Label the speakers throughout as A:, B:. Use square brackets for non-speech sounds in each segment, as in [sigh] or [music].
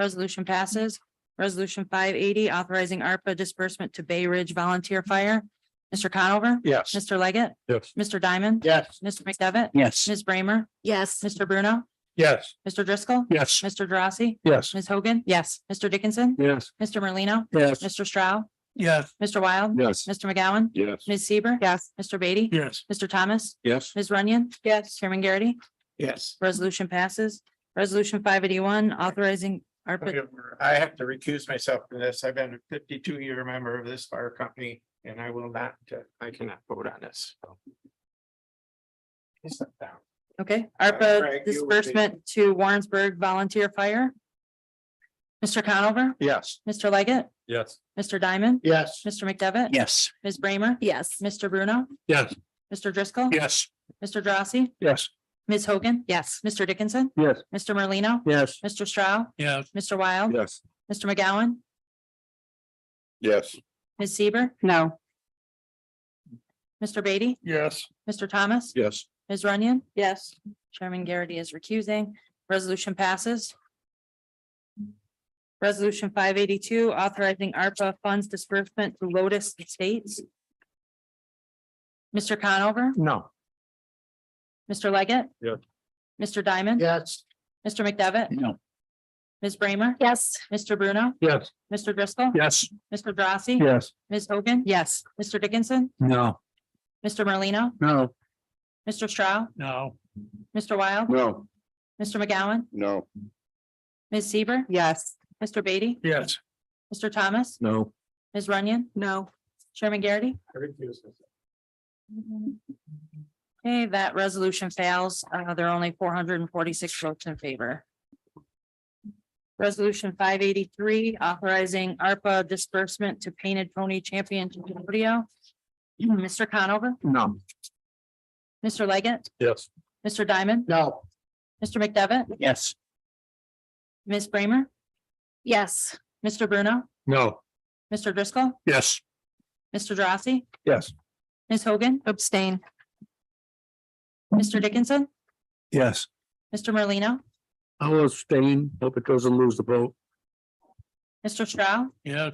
A: Resolution passes. Resolution five eighty, authorizing ARPA disbursement to Bay Ridge Volunteer Fire. Mr. Conover?
B: Yes.
A: Mr. Leggett?
B: Yes.
A: Mr. Diamond?
B: Yes.
A: Mr. McDevitt?
B: Yes.
A: Ms. Bramer?
C: yes,
A: Mr. Bruno?
B: Yes.
A: Mr. Driscoll?
B: Yes.
A: Mr. Drossy?
B: Yes.
A: Ms. Hogan? Yes. Mr. Dickinson?
B: Yes.
A: Mr. Merlino?
B: Yes.
A: Mr. Stroud?
B: Yes.
A: Mr. Wild?
B: Yes.
A: Mr. McGowan?
B: Yes.
A: Ms. Seaver? Yes. Mr. Beatty?
B: Yes.
A: Mr. Thomas?
B: Yes.
A: Ms. Runyon? Yes. Chairman Garrity?
B: Yes.
A: Resolution passes. Resolution five eighty-one, authorizing ARPA.
D: I have to recuse myself from this. I've been a fifty-two year member of this fire company and I will not, uh, I cannot vote on this. so. It's not down.
A: Okay,
D: Craig,
A: ARPA
D: you would be-
A: disbursement to Warrensburg Volunteer Fire. Mr. Conover,
B: Yes.
A: Mr. Leggett,
B: Yes.
A: Mr. Diamond,
B: Yes.
A: Mr. McDevitt.
B: Yes.
A: Ms. Bramer,
C: yes,
A: Mr. Bruno,
B: Yes.
A: Mr. Driscoll.
B: Yes.
A: Mr. Drossy,
B: Yes.
A: Ms. Hogan. Yes. Mr. Dickinson,
B: Yes.
A: Mr. Merlino,
B: Yes.
A: Mr. Stroud,
B: Yes.
A: Mr. Wild,
B: Yes.
A: Mr. McGowan,
B: Yes.
A: Ms. Seaver.
C: no,
A: Mr. Beatty,
B: Yes.
A: Mr. Thomas,
B: Yes.
A: Ms. Runyon,
C: yes,
A: Chairman Garrity is recusing. Resolution passes. Resolution five eighty-two, authorizing ARPA funds disbursement to Lotus Estates. Mr. Conover,
B: No.
A: Mr. Leggett.
B: Yes.
A: Mr. Diamond.
B: Yes.
A: Mr. McDevitt,
B: No.
A: Ms. Bramer,
C: yes,
A: Mr. Bruno,
B: Yes.
A: Mr. Driscoll,
B: Yes.
A: Mr. Drossy.
B: Yes.
A: Ms. Hogan. Yes. Mr. Dickinson,
B: No.
A: Mr. Merlino,
B: No.
A: Mr. Stroud,
B: No.
A: Mr. Wild,
B: No.
A: Mr. McGowan,
B: No.
A: Ms. Seaver,
C: yes,
A: Mr. Beatty,
B: Yes.
A: Mr. Thomas,
B: No.
A: Ms. Runyon,
C: no,
A: Chairman Garrity.
D: I recuse myself.
A: Okay, that resolution fails. Uh, there are only four hundred and forty-six votes in favor. Resolution five eighty-three, authorizing ARPA disbursement to Painted Pony Championship Rodeo. [clears throat] Mr. Conover,
B: No.
A: Mr. Leggett,
B: Yes.
A: Mr. Diamond,
B: No.
A: Mr. McDevitt,
B: Yes.
A: Ms. Bramer,
C: yes,
A: Mr. Bruno,
B: No.
A: Mr. Driscoll,
B: Yes.
A: Mr. Drossy,
B: Yes.
A: Ms. Hogan. Abstain. Mr. Dickinson,
B: Yes.
A: Mr. Merlino,
B: I will abstain. Hope it doesn't lose the vote.
A: Mr. Stroud,
B: Yes.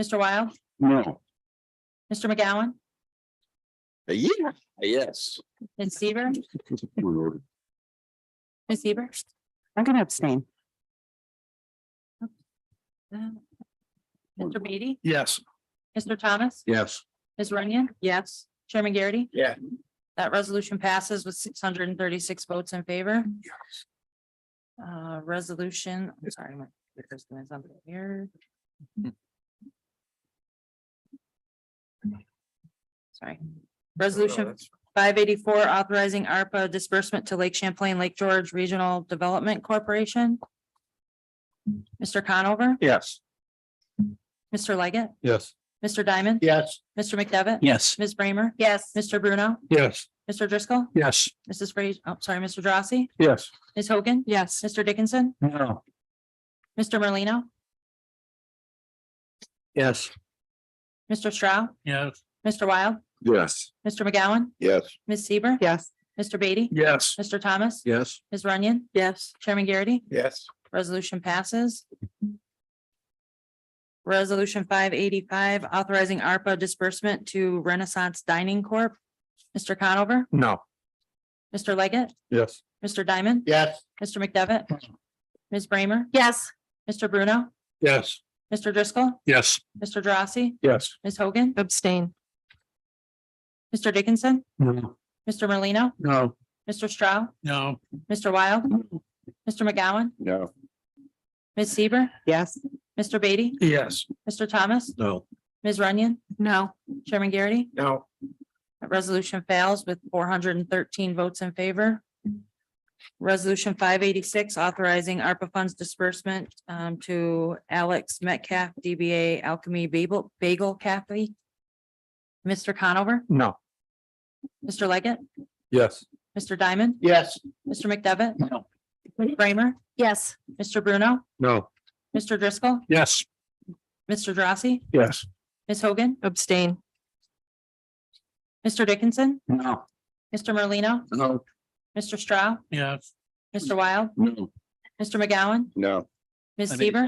A: Mr. Wild,
B: No.
A: Mr. McGowan,
B: Uh, Yeah. Yes.
A: Ms.
B: [laughs]
A: Seaver, Ms. Seaver.
C: I'm gonna abstain.
A: Mr. Beatty,
B: Yes.
A: Mr. Thomas,
B: Yes.
A: Ms. Runyon, yes, Chairman Garrity.
D: Yeah.
A: That resolution passes with six hundred and thirty-six votes in favor. Uh, resolution, I'm sorry. my clicker's doing something weird. Sorry. Resolution Five eighty-four, authorizing ARPA disbursement to Lake Champlain, Lake George Regional Development Corporation. Mr. Conover,
B: Yes.
A: Mr. Leggett,
B: Yes.
A: Mr. Diamond,
B: Yes.
A: Mr. McDevitt,
B: Yes.
A: Ms. Bramer,
C: Yes,
A: Mr. Bruno,
B: Yes.
A: Mr. Driscoll,
B: Yes.
A: Mrs. Fraser, oh, sorry, Mr. Drossy,
B: Yes.
A: Ms. Hogan. Yes. Mr. Dickinson,
B: No.
A: Mr. Merlino,
B: Yes.
A: Mr. Stroud,
B: Yes.
A: Mr. Wild,
B: Yes.
A: Mr. McGowan,
B: Yes.
A: Ms. Seaver,
C: yes,
A: Mr. Beatty,
B: Yes.
A: Mr. Thomas,
B: Yes.
A: Ms. Runyon,
C: yes,
A: Chairman Garrity.
D: Yes,
A: Resolution passes. Resolution five eighty-five, authorizing ARPA disbursement to Renaissance Dining Corp. Mr. Conover,
B: No.
A: Mr. Leggett,
B: Yes.
A: Mr. Diamond,
B: Yes.
A: Mr. McDevitt, Ms. Bramer,
C: yes,
A: Mr. Bruno,
B: Yes.
A: Mr. Driscoll,
B: Yes.
A: Mr. Drossy,
B: Yes.
A: Ms. Hogan. Abstain. Mr. Dickinson,
B: No.
A: Mr. Merlino,
B: No.
A: Mr. Stroud,
B: No.
A: Mr. Wild, Mr. McGowan,
B: No.
A: Ms. Seaver,
C: yes,
A: Mr. Beatty,
B: Yes.
A: Mr. Thomas,
B: No.
A: Ms. Runyon,
C: no,
A: Chairman Garrity.
D: no,
A: That resolution fails with four hundred and thirteen votes in favor. Resolution five eighty-six, authorizing ARPA funds disbursement um, to Alex Metcalf, DBA Alchemy Bagel, Bagel Cafe. Mr. Conover,
B: No.
A: Mr. Leggett,
B: Yes.
A: Mr. Diamond,
B: Yes.
A: Mr. McDevitt,
B: No.
A: Bramer,
C: yes,
A: Mr. Bruno,
B: No.
A: Mr. Driscoll,
B: Yes.
A: Mr. Drossy,
B: Yes.
A: Ms. Hogan. Abstain. Mr. Dickinson,
B: No.
A: Mr. Merlino,
B: No.
A: Mr. Stroud,
B: Yes.
A: Mr. Wild,
B: No.
A: Mr. McGowan,
B: No.
A: Ms.
E: I mean-
A: Seaver?